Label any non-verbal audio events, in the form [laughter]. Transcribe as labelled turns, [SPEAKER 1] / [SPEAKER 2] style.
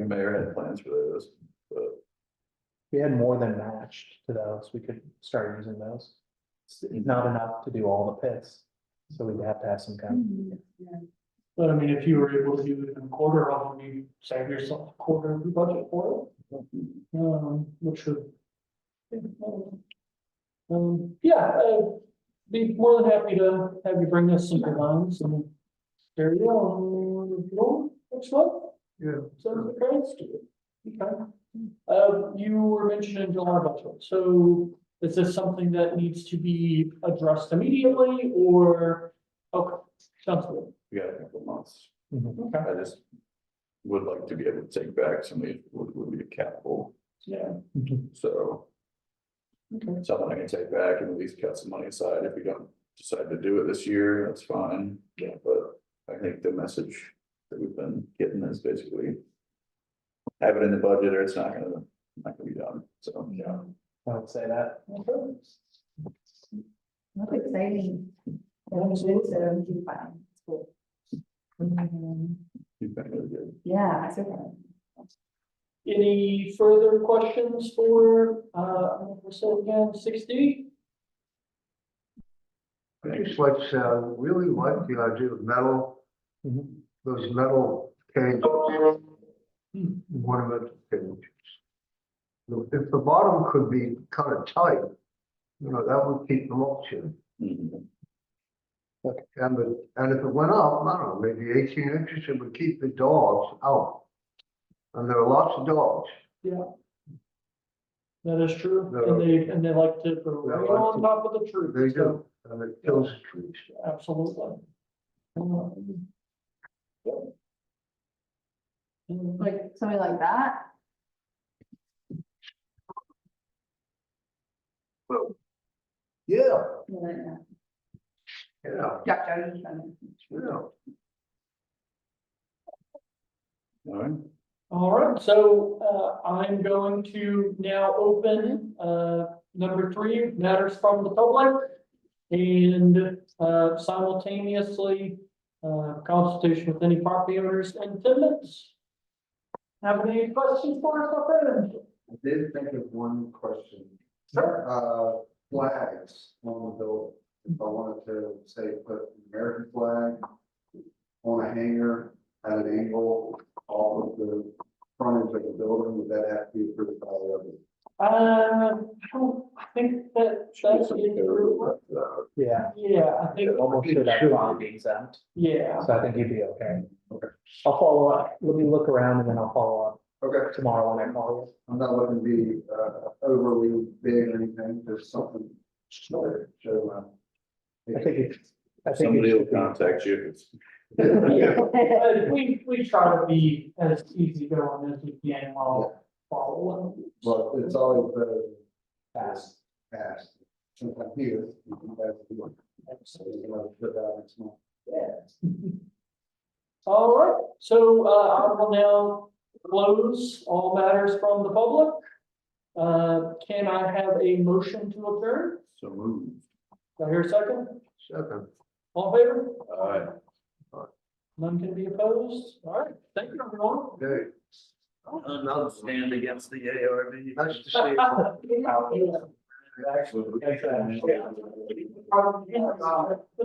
[SPEAKER 1] the mayor had plans for those, but
[SPEAKER 2] We had more than matched to those, we could start using those. It's Not enough to do all the pits, so we'd have to have some kind
[SPEAKER 3] But I mean, if you were able to do it in a quarter, off, you save yourself a quarter of your budget for it. Um, which would. Um, yeah, uh, be more than happy to have you bring us some designs and. There you go, and review them next month.
[SPEAKER 1] Yeah.
[SPEAKER 3] So the grants do it. Okay. Uh, you were mentioning July budget, so is this something that needs to be addressed immediately or? Okay, sounds good.
[SPEAKER 1] we got a couple of months.
[SPEAKER 2] of.
[SPEAKER 3] Okay,
[SPEAKER 1] I just would like to be able to take back some of these, would, would be capital,
[SPEAKER 3] yeah,
[SPEAKER 2] Mm-hmm.
[SPEAKER 1] so
[SPEAKER 3] okay,
[SPEAKER 1] something I can take back and at least cut some money aside. If we don't decide to do it this year, that's fine.
[SPEAKER 3] Yeah.
[SPEAKER 1] But I think the message that we've been getting is basically have it in the budget or it's not gonna, not gonna be done, so. Yeah.
[SPEAKER 2] I would say that.
[SPEAKER 3] okay.
[SPEAKER 4] That's exciting.
[SPEAKER 3] Yeah,
[SPEAKER 4] Um,
[SPEAKER 3] it's
[SPEAKER 4] so, um, it's cool. Um,
[SPEAKER 1] You've been really good.
[SPEAKER 4] Yeah, I suppose.
[SPEAKER 3] Any further questions for, uh, so again, sixty?
[SPEAKER 5] I just like, uh, really like the idea of metal,
[SPEAKER 2] Mhm.
[SPEAKER 5] those metal cages. Ornament cages. If if the bottom could be kind of tight, you know, that would keep the moisture.
[SPEAKER 1] Mhm.
[SPEAKER 5] And the, and if it went up, I don't know, maybe eighteen inches, it would keep the dogs out. And there are lots of dogs.
[SPEAKER 3] That is true, and they, and they like to go right on top of the tree.
[SPEAKER 5] They
[SPEAKER 3] so-
[SPEAKER 5] do, and it kills trees.
[SPEAKER 3] Absolutely. Um, yeah. Um,
[SPEAKER 4] like something like that.
[SPEAKER 5] Yeah,
[SPEAKER 4] Yeah.
[SPEAKER 5] yeah,
[SPEAKER 4] Jack Jones and-
[SPEAKER 5] yeah.
[SPEAKER 1] All right.
[SPEAKER 3] All right, so uh, I'm going to now open uh, number three, matters from the public. And uh, simultaneously, uh, consultation with any property owners and tenants. Have any questions for us, my friend?
[SPEAKER 6] I did think of one question.
[SPEAKER 3] Sure.
[SPEAKER 6] Uh, flags on the building, if I wanted to say, put an American flag on a hanger at an angle, all of the frontage of the building, would that have to be approved by the other?
[SPEAKER 3] Uh, I don't, I think that that's it.
[SPEAKER 1] Uh,
[SPEAKER 2] Yeah,
[SPEAKER 3] Yeah, I think,
[SPEAKER 2] it almost should have bond exempt,
[SPEAKER 3] yeah.
[SPEAKER 2] [laughs] so I think you'd be okay. I'll follow up, let me look around and then I'll follow
[SPEAKER 6] Okay,
[SPEAKER 2] up tomorrow when I call
[SPEAKER 6] I'm not looking to be uh, overly big or anything, just something short, uh, show
[SPEAKER 2] you. I think it, I think it
[SPEAKER 1] Somebody will
[SPEAKER 2] should be.
[SPEAKER 1] contact you. if it's-
[SPEAKER 3] Yeah, but we, we try to be as easy going as we can while following.
[SPEAKER 6] But it's always better
[SPEAKER 2] fast.
[SPEAKER 6] to ask, since I'm here, you can ask the one. So, you know, put that next month.
[SPEAKER 3] All right, so, uh, I will now close all matters from the public. Uh, can I have a motion to adjourn?
[SPEAKER 1] So moved.
[SPEAKER 3] Do I hear a second?
[SPEAKER 5] Second.
[SPEAKER 3] All in favor?
[SPEAKER 1] All right.
[SPEAKER 3] None can be opposed? All right, thank you, everyone.
[SPEAKER 5] Okay,
[SPEAKER 1] Another stand against the ARB.
[SPEAKER 5] nice to see you.
[SPEAKER 3] [laughs] Yeah.